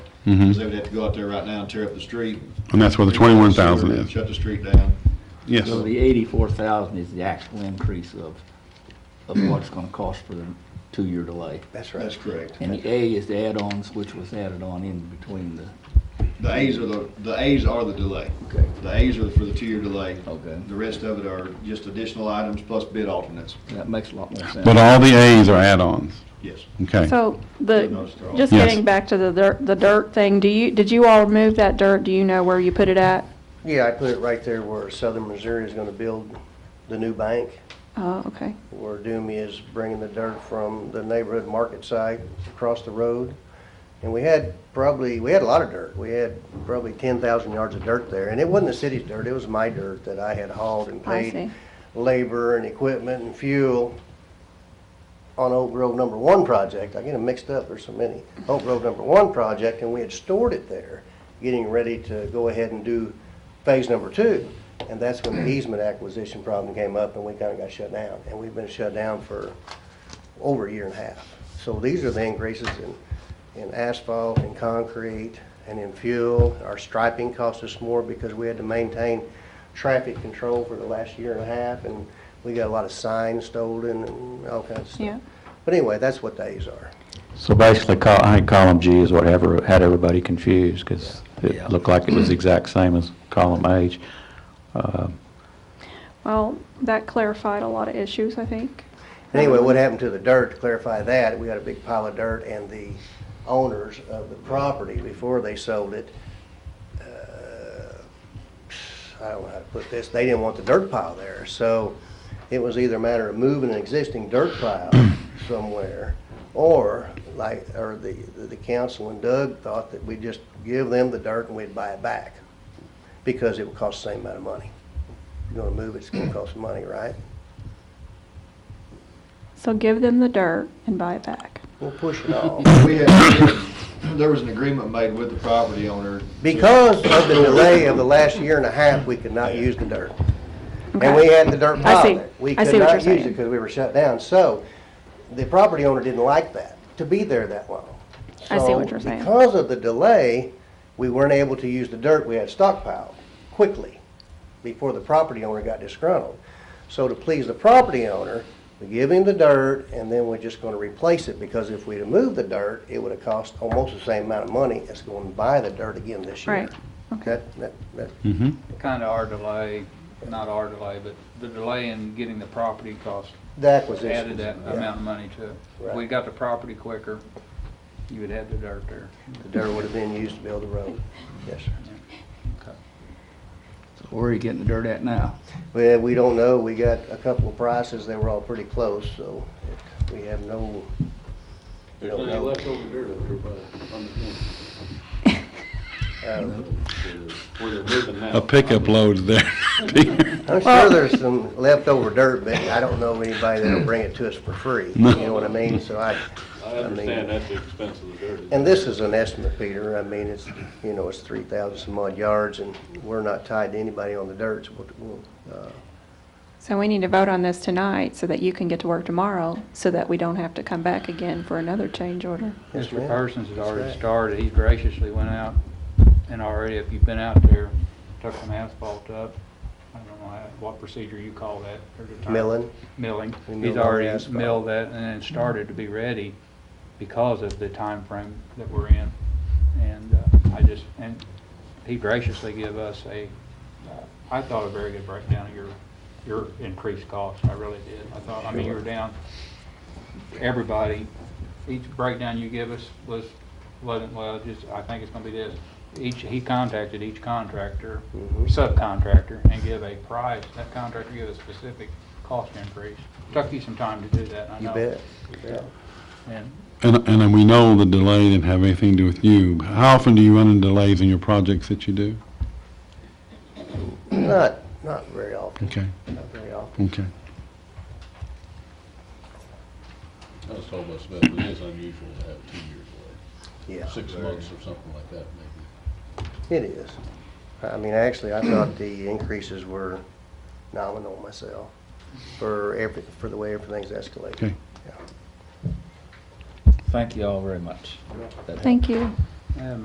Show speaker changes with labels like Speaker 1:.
Speaker 1: Because they would have to go out there right now and tear up the street.
Speaker 2: And that's where Mm-hmm. the twenty-one thousand is.
Speaker 1: Shut the street down.
Speaker 2: Yes.
Speaker 3: So the eighty-four thousand is the actual increase of, of what it's gonna cost for the two-year delay.
Speaker 4: That's
Speaker 1: That's correct.
Speaker 3: And the A is the add-ons, which was added on in between the,
Speaker 1: The A's are the, the A's are the delay.
Speaker 3: Okay.
Speaker 1: The A's are for the two-year delay.
Speaker 3: Okay.
Speaker 1: The rest of it are just additional items plus bid alternates.
Speaker 3: that makes a lot more sense.
Speaker 2: But all the A's are add-ons,
Speaker 1: Yes.
Speaker 2: okay?
Speaker 5: So the, just
Speaker 2: Yes.
Speaker 5: getting back to the dirt, the dirt thing, do you, did you all remove that dirt? Do you know where you put it at?
Speaker 4: Yeah, I put it right there where Southern Missouri is gonna build the new bank.
Speaker 5: Oh, okay.
Speaker 4: Where Doomy is bringing the dirt from the neighborhood market side across the road. And we had probably, we had a lot of dirt. We had probably ten thousand yards of dirt there. And it wasn't the city's dirt, it was my dirt that I had hauled and
Speaker 5: I
Speaker 4: paid
Speaker 5: see.
Speaker 4: labor and equipment and fuel on Oak Grove Number One project. I get them mixed up, there's so many. Oak Grove Number One project, and we had stored it there, getting ready to go ahead and do phase number two. And that's when the easement acquisition problem came up, and we kind of got shut down. And we've been shut down for over a year and a half. So these are the increases in, in asphalt and concrete and in fuel. Our striping cost us more because we had to maintain traffic control for the last year and a half, and we got a lot of signs stolen and all kinds of stuff.
Speaker 5: Yeah.
Speaker 4: But anyway, that's what these are.
Speaker 6: So basically, col- I think column G is what ever, had everybody confused, because it looked like it was the exact same as column H.
Speaker 5: Well, that clarified a lot of issues, I think.
Speaker 4: Anyway, what happened to the dirt, to clarify that, we got a big pile of dirt, and the owners of the property, before they sold it, uh, I don't know how to put this, they didn't want the dirt pile there, so it was either a matter of moving an existing dirt pile somewhere, or like, or the, the council and Doug thought that we'd just give them the dirt and we'd buy it back, because it would cost the same amount of money. If you're gonna move it, it's gonna cost money, right?
Speaker 5: So give them the dirt and buy it back.
Speaker 4: We'll push it off.
Speaker 1: We had, there was an agreement made with the property owner. to-
Speaker 4: Because of the delay of the last year and a half, we could not use the dirt. And we had the dirt
Speaker 5: I see.
Speaker 4: piled. We
Speaker 5: I see
Speaker 4: could
Speaker 5: what
Speaker 4: not
Speaker 5: you're
Speaker 4: use
Speaker 5: saying.
Speaker 4: it because we were shut down. So the property owner didn't like that, to be there that long.
Speaker 5: I see
Speaker 4: So
Speaker 5: what you're saying.
Speaker 4: Because of the delay, we weren't able to use the dirt we had stockpiled quickly before the property owner got disgruntled. So to please the property owner, we give him the dirt and then we're just gonna replace it because if we'd have moved the dirt, it would have cost almost the same amount of money as going to buy the dirt again this year.
Speaker 5: Right.
Speaker 4: That, that, that,
Speaker 2: Mm-hmm.
Speaker 7: kind of our delay, not our delay, but the delay in getting the property cost
Speaker 4: the acquisition.
Speaker 7: added that amount of money to it. If we
Speaker 4: Right.
Speaker 7: got the property quicker, you would have the dirt there.
Speaker 4: The dirt would have been used to build a road. Yes, sir.
Speaker 3: So Where are you getting the dirt at now?
Speaker 4: Well, we don't know. We got a couple of prices. They were all pretty close, so it- we have no. There's plenty left over
Speaker 2: A pickup load there.
Speaker 4: I'm sure there's some leftover dirt, but I don't know of anybody that'll bring it to us for free. You know what I mean? So I. I understand that's the expense of the dirt. And this is an estimate, Peter. I mean, it's, you know, it's three thousand some odd yards and we're not tied to anybody on the dirt. So we'll, we'll, uh,
Speaker 5: So we need to vote on this tonight so that you can get to work tomorrow, so that we don't have to come back again for another change order.
Speaker 4: Yes,
Speaker 7: Mr.
Speaker 4: ma'am.
Speaker 7: Parsons has
Speaker 4: That's
Speaker 7: already
Speaker 4: right.
Speaker 7: started, he graciously went out and already, if you've been out there, took some asphalt up. I don't know how- what procedure you call that. There's a term.
Speaker 4: Milling.
Speaker 7: Milling.
Speaker 4: We milled
Speaker 7: He's
Speaker 4: all the
Speaker 7: already
Speaker 4: asphalt.
Speaker 7: milled that and then started to be ready because of the time frame that we're in. And uh, I just, and he graciously gave us a, uh, I thought a very good breakdown of your, your increased cost. I really did. I thought, I mean, you were down, everybody, each breakdown you give us was, wasn't, well, just, I think it's gonna be this. Each, he contacted each contractor,
Speaker 4: Mm-hmm.
Speaker 7: subcontractor, and give a price. That contractor gave a specific cost increase. Took you some time to do that, I
Speaker 4: you
Speaker 7: know.
Speaker 4: bet. You bet.
Speaker 7: And
Speaker 2: And, and then we know the delay didn't have anything to do with you. How often do you run into delays in your projects that you do?
Speaker 4: Not, not very often,
Speaker 2: Okay,
Speaker 4: not very often.
Speaker 2: okay.
Speaker 8: I was told by Smith, it is unusual to have two years away,
Speaker 4: Yeah.
Speaker 8: six months or something like that, maybe.
Speaker 4: It is. I mean, actually, I thought the increases were nominal myself for every, for the way everything's escalated.
Speaker 2: Okay.
Speaker 6: Thank you all very much.
Speaker 5: Thank you.
Speaker 7: and